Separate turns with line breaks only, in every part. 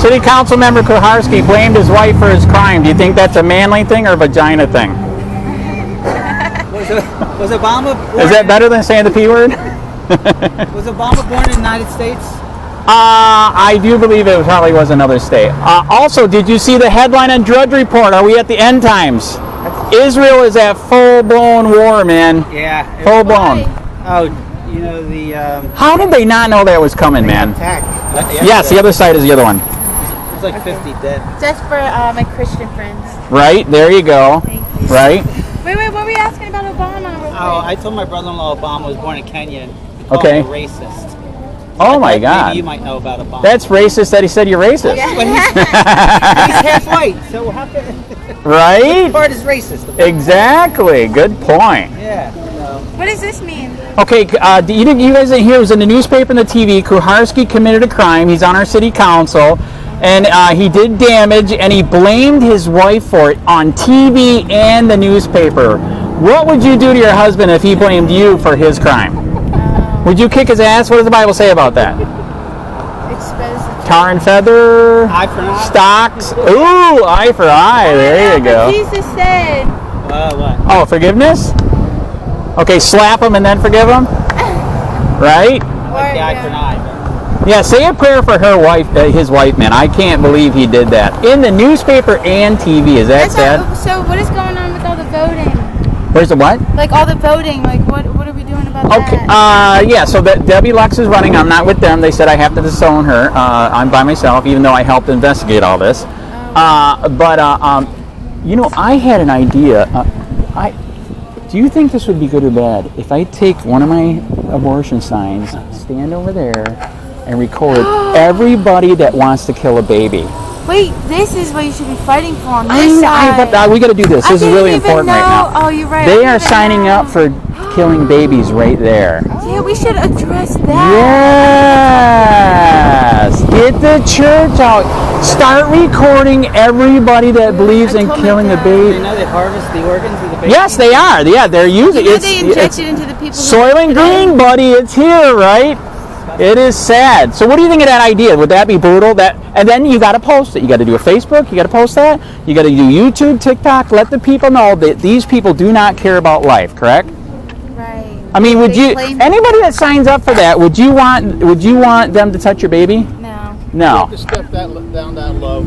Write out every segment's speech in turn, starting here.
City Councilmember Kuharski blamed his wife for his crime. Do you think that's a manly thing or a vagina thing?
Was, was Obama born,
Is that better than saying the P word?
Was Obama born in the United States?
Uh, I do believe it probably was another state. Uh, also, did you see the headline on Drudge Report? Are we at the end times? Israel is at full blown war, man.
Yeah. it-
Full blown.
oh, you know the um,
How did they not know that was coming, man?
attack.
Yes, the other side is the other one.
It's like 50 dead.
Just for uh, my Christian friends.
Right? There you go.
Thank you.
Right?
Wait, wait, what were you asking about Obama? real
Oh,
quick?
I told my brother-in-law Obama was born in Kenya. and he called
Okay.
him a racist.
Oh my
Maybe you
god.
might know about Obama.
That's racist that he said you're racist.
But he's, he's half white, so how can
Right?
part is racist?
Exactly. Good point.
Yeah. you know.
what does this mean?
Okay, uh, do you, didn't- you guys didn't hear. It was in the newspaper and the TV. Kuharski committed a crime. He's on our city council, and uh, he did damage, and he blamed his wife for it on TV and the newspaper. What would you do to your husband if he blamed you for his crime? Would you kick his ass? What does the Bible say about that?
Exposed.
Tar and feather,
Eye for an eye.
stocks. Ooh, eye for eye. There you go.
Jesus said,
Uh, what?
Oh, forgiveness? Okay, slap him and then forgive him? Right?
or,
The eye for an
yeah.
eye.
Yeah, say a prayer for her wife, uh, his wife, man. I can't believe he did that. In the newspaper and TV. Is that
That's
sad?
all- so what is going on with all the voting?
Where's the what?
Like all the voting, like what what are we doing about
Okay. Uh,
that?
yeah. So that Debbie Lux is running. I'm not with them. They said I have to disown her. Uh, I'm by myself, even though I helped investigate all this.
Oh.
Uh, but uh, um, you know, I had an idea. Uh, I do you think this would be good or bad if I take one of my abortion signs, stand over there, and record everybody that wants to kill a baby?
Wait, this is what you should be fighting for on
uh, I
this
know- I-
side.
but, uh, we got to do this.
I
This is
didn't
really
even
important right
know-
now.
Oh, you're right. I
They
didn't
are
even
signing
know.
up for killing babies right there.
Yeah, we should address that.
Yes! Get the church out. Start recording everybody that believes in
told my
killing a
dad.
You
baby.
know they harvest the organs of the baby?
Yes, they are. Yeah, they're using
You know
it's,
they inject
it's
it into the people. who-
soil and green, buddy. It's here, right? It is sad. So, what do you think of that idea? Would that be brutal? That, and then you got to post it. You got to do a Facebook. You got to post that. You got to do YouTube, TikTok. Let the people know that these people do not care about life. Correct?
Right.
I mean, would
They
you?
claim-
Anybody that signs up for that, would you want? Would you want them to touch your baby?
No.
No.
to step that l- down that low.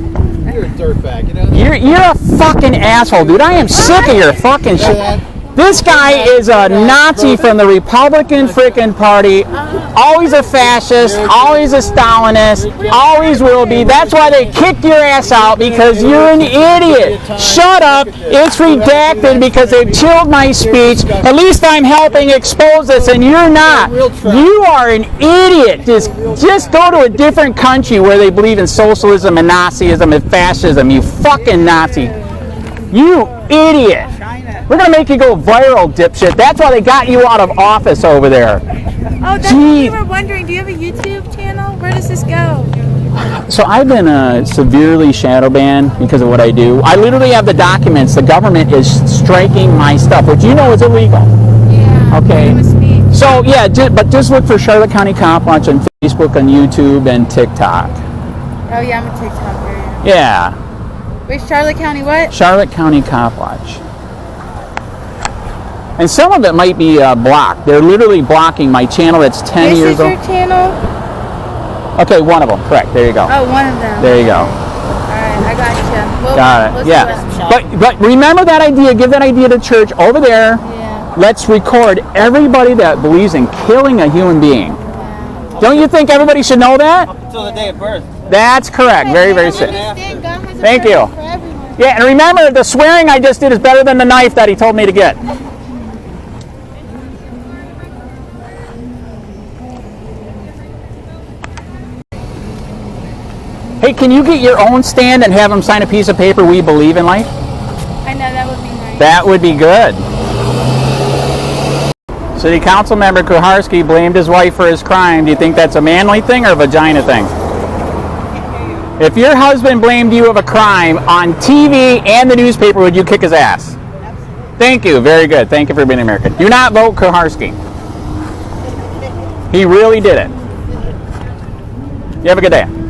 You're a dirtbag, you know. that?
You're you're a fucking asshole, dude. I am sick of your fucking shit. This guy is a Nazi from the Republican freaking party. Always a fascist, always a Stalinist, always will be. That's why they kicked your ass out because you're an idiot. Shut up. It's redacted because they chilled my speech. At least I'm helping expose this and you're not. You are an idiot. Just just go to a different country where they believe in socialism and Nazism and fascism. You fucking Nazi. You idiot.
China.
We're gonna make you go viral, dipshit. That's why they got you out of office over there.
Oh, that's what
Gee.
we were wondering. Do you have a YouTube channel? Where does this go?
So I've been uh, severely shadow banned because of what I do. I literally have the documents. The government is striking my stuff, which you know is illegal.
Yeah.
Okay.
freedom of speech.
So yeah, ju- but just look for Charlotte County Cop Watch on Facebook, on YouTube, and TikTok.
Oh yeah, I'm a
Yeah,
TikToker. Yeah. Wait, Charlotte County, what?
Charlotte County Cop Watch. And some of it might be uh, blocked. They're literally blocking my channel. That's 10
This
years
is your
old.
channel?
Okay, one of them. Correct. There you go.
Oh, one of them.
There you go.
All right, I got you. Well,
Got it.
let's
Yeah.
do
But but remember that idea. Give that idea to church over there.
Yeah.
Let's record everybody that believes in killing a human being. Don't you think everybody should know that?
Until the day of birth.
That's correct. Very very
sick.
sick. Thank
Thank
you. Yeah, and remember the swearing I just did is better than the knife that he told me to get. Hey, can you get your own stand and have them sign a piece of paper we believe in life?
I know that would be nice.
That would be good. City Council member Kuharski blamed his wife for his crime. Do you think that's a manly thing or a vagina thing? If your husband blamed you of a crime on TV and the newspaper, would you kick his ass? Thank you. Very good. Thank you for being American. Do not vote Kuharski. He really did it. You have a good day.